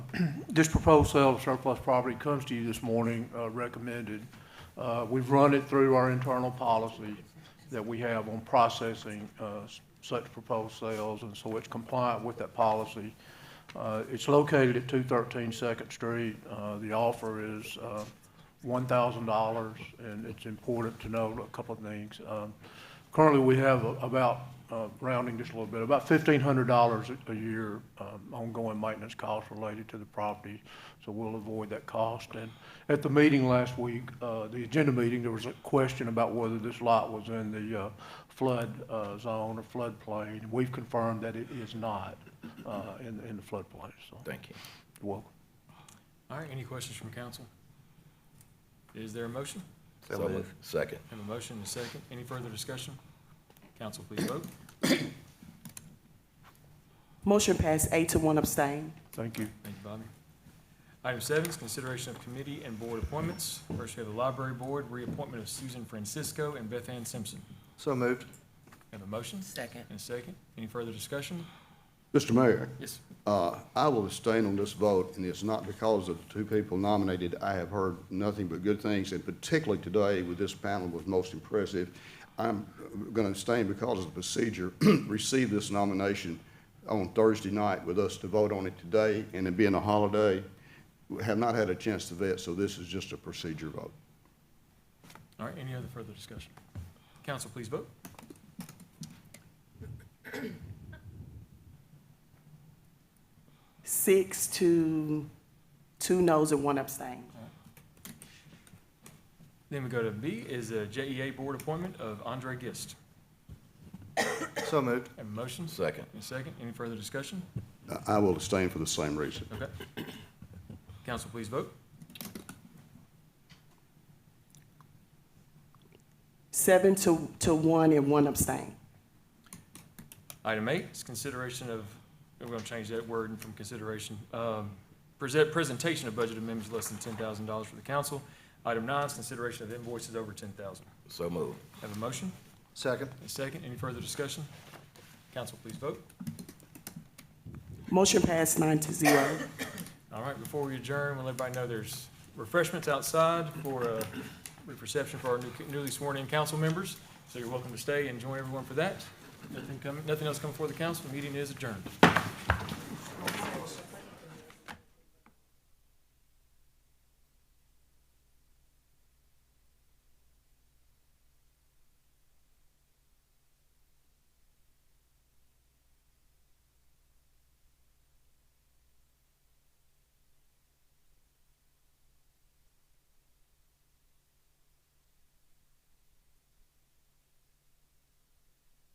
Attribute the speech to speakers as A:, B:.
A: this proposed sale of surplus property comes to you this morning, uh, recommended. Uh, We've run it through our internal policy that we have on processing uh, such proposed sales, and so it's compliant with that policy. Uh, It's located at 213 Second Street. Uh, The offer is uh, $1,000, and it's important to note a couple of things. Um, Currently, we have a- about, uh, rounding just a little bit, about $1,500 a a year um, ongoing maintenance costs related to the property, so we'll avoid that cost. And at the meeting last week, uh, the agenda meeting, there was a question about whether this lot was in the uh, flood uh, zone or floodplain. We've confirmed that it is not uh, in in the floodplain, so
B: Thank you.
A: you're welcome.
C: All right, any questions from council? Is there a motion?
B: So moved. Second.
C: Have a motion and a second. Any further discussion? Council, please vote.
D: Motion passed eight to one abstain.
A: Thank you.
C: Thank you, Bobby. Item seven is consideration of committee and board appointments. First, we have the library board, reappointment of Susan Francisco and Beth Ann Simpson.
E: So moved.
C: Have a motion
D: Second.
C: and a second. Any further discussion?
F: Mr. Mayor,
C: Yes.
F: uh, I will abstain on this vote, and it's not because of the two people nominated. I have heard nothing but good things, and particularly today with this panel was most impressive. I'm going to abstain because of the procedure. Received this nomination on Thursday night with us to vote on it today, and it being a holiday, we have not had a chance to vet, so this is just a procedure vote.
C: All right, any other further discussion? Council, please vote.
D: Six to two noes and one abstain.
C: Then we go to B is a JEA board appointment of Andre Gist.
E: So moved.
C: Have a motion
B: Second.
C: and a second. Any further discussion?
F: I- I will abstain for the same reason.
C: Okay. Council, please vote.
D: Seven to, to one and one abstain.
C: Item eight is consideration of, we're gonna change that word from consideration, um, present, presentation of budget amendments less than ten thousand dollars for the council. Item nine is consideration of invoices over ten thousand.
B: So moved.
C: Have a motion,
E: Second.
C: a second, any further discussion? Council, please vote.
D: Motion passed nine to zero.
C: All right, before we adjourn, we'll let everybody know there's refreshments outside for, uh, reception for our new- newly sworn-in council members. So you're welcome to stay and join everyone for that. Nothing coming, nothing else coming before the council, meeting is adjourned.